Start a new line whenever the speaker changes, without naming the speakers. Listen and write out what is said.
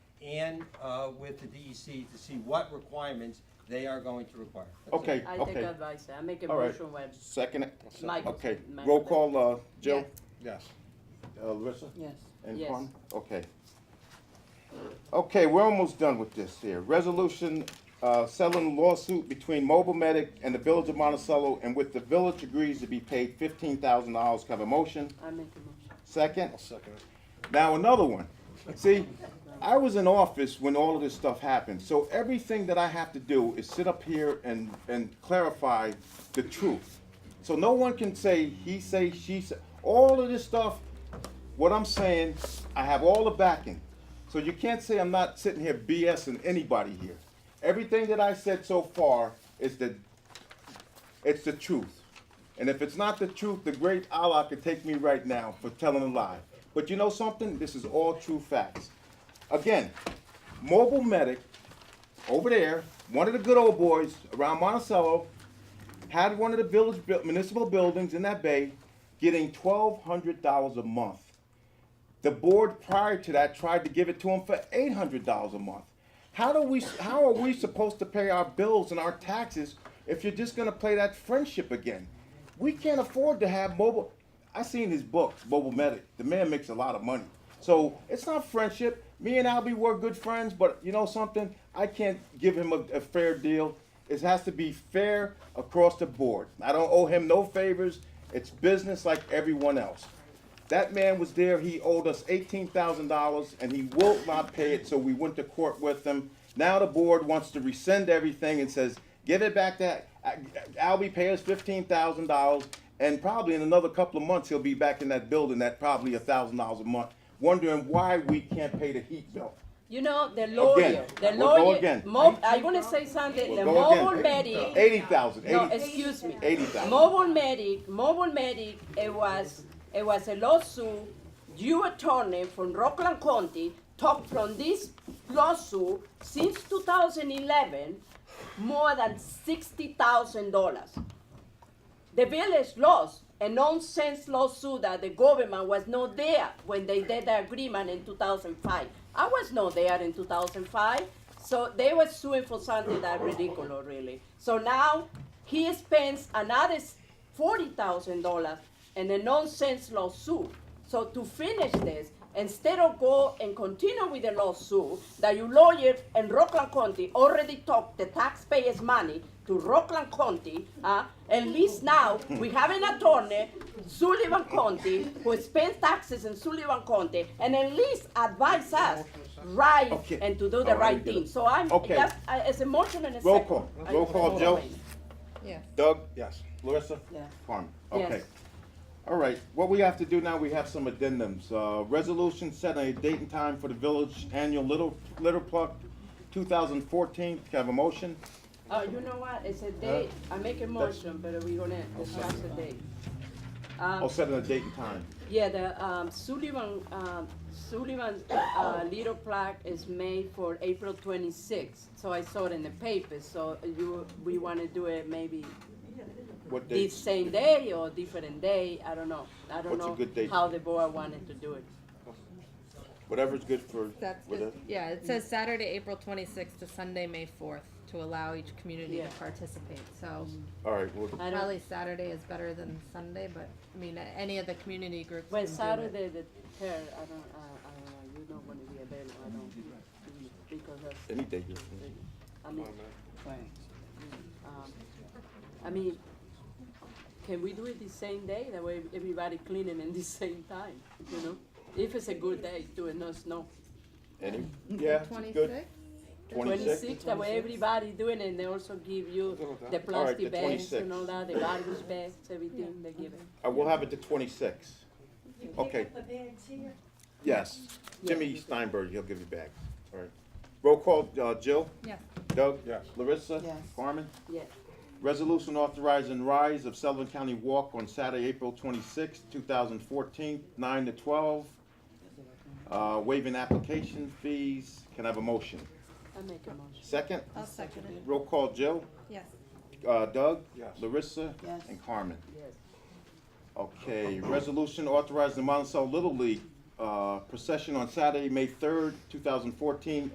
and uh, with the DEC to see what requirements they are going to require. That's it.
Okay,
I take
okay.
advice, I make a
All right.
motion when,
Second, it?
Mike.
okay.
Mike.
Roll call, uh, Jill?
Yes.
Uh, Larissa?
yes,
And
yes.
Quan? Okay. Okay, we're almost done with this here. Resolution, uh, selling lawsuit between Mobile Medic and the Village of Monticello, and with the village agrees to be paid fifteen thousand dollars. Have a motion?
I make a motion.
Second?
second it.
Now another one. See, I was in office when all of this stuff happened, so everything that I have to do is sit up here and, and clarify the truth. So no one can say, he say, she say, all of this stuff, what I'm saying, I have all the backing. So you can't say I'm not sitting here BSing anybody here. Everything that I said so far is the it's the truth. And if it's not the truth, the great Allah could take me right now for telling a lie. But you know something? This is all true facts. Again, Mobile Medic over there, one of the good old boys around Monticello, had one of the village bu- municipal buildings in that bay getting $1,200 a month. The board prior to that tried to give it to him for eight hundred dollars a month. How do we? How are we supposed to pay our bills and our taxes if you're just gonna play that friendship again? We can't afford to have mobile. I seen his books, Mobile Medic. The man makes a lot of money, so it's not friendship. Me and Albie were good friends, but you know something? I can't give him a, a fair deal. It has to be fair across the board. I don't owe him no favors. It's business like everyone else. That man was there, he owed us eighteen thousand dollars, and he will not pay it, so we went to court with him. Now the board wants to rescind everything and says, give it back to, Albie pay us fifteen thousand dollars, and probably in another couple of months, he'll be back in that building at probably a thousand dollars a month, wondering why we can't pay the heat bill.
You know, the lawyer, the
We'll go
lawyer,
again.
mob, I wanna say something, the
We'll go again.
mobile medic.
Eighty thousand,
No,
eighty,
excuse me.
eighty thousand.
Mobile Medic, Mobile Medic, it was, it was a lawsuit. You attorney from Rockland County talked from this lawsuit since 2011, more than $60,000. The village lost a nonsense lawsuit that the government was not there when they did the agreement in 2005. I was not there in 2005, so they were suing for something that ridiculous, really. So now he spends another forty thousand dollars in a nonsense lawsuit. So to finish this, instead of go and continue with the lawsuit that your lawyer in Rockland County already took the taxpayers' money to Rockland County, uh, at least now we have an attorney, Sullivan County, who spends taxes in Sullivan County, and at least advise us right
Okay.
and to do
All
the
right,
right
we get
thing.
it.
So I'm,
Okay.
that's, uh, it's a motion and a second.
Roll call,
I-
roll call, Joe.
Yes.
Doug?
Yes.
Larissa?
Yeah.
Carmen,
Yes.
okay. All right, what we have to do now, we have some addendums. Uh, resolution setting a date and time for the village annual Little, Little Pluck two thousand fourteen. Can I have a motion?
Oh, you know what, it's a date, I make a motion, but we're gonna discuss the date.
Oh,
Um,
setting a date and time.
yeah, the, um, Sullivan, um, Sullivan's, uh, little plaque is made for April twenty-sixth, so I saw it in the paper, so you, we wanna do it maybe
What
the
date?
same day or different day, I don't know, I don't
What's a
know
good date?
how the board wanted to do it.
Whatever's good for,
That's,
whatever.
yeah, it
Mm.
says Saturday, April twenty-sixth to Sunday, May fourth, to allow each community to
Yeah. Mm.
participate, so
All right, well,
I don't,
probably Saturday is better than Sunday, but, I mean, a- any of the community groups can
when
do it.
Saturday, the third, I don't, uh, I don't know, you don't wanna be available, I don't, mm, because that's.
any day.
I mean, um, I mean, can we do it the same day? That way everybody cleaning in the same time, you know? If it's a good day, do it, no snow.
Any, yeah, it's good.
Twenty-sixth?
Twenty-six?
that way everybody doing it, and they also give you the
the
plastic bags
26.
and all that, the garbage bags, everything they give it.
I will Uh, have it to twenty-six. Okay. Yes, Jimmy Steinberg, he'll give you back. All right. Roll call, uh, Jill?
Yes.
Doug?
Yes.
Larissa?
Yes.
Carmen?
Yeah,
Resolution authorizing rise of Sullivan County Walk on Saturday, April twenty-sixth, two thousand fourteen, nine to twelve. Uh, waiving application fees. Can I have a motion?
I make a motion.
Second,
I'll second it,
roll call Jill,
yes.
uh, Doug?
Yes.
Larissa?
Yes.
And Carmen.
Yes.
Okay, resolution authorizing the Monticello Little League, uh, procession on Saturday, May third, two thousand fourteen,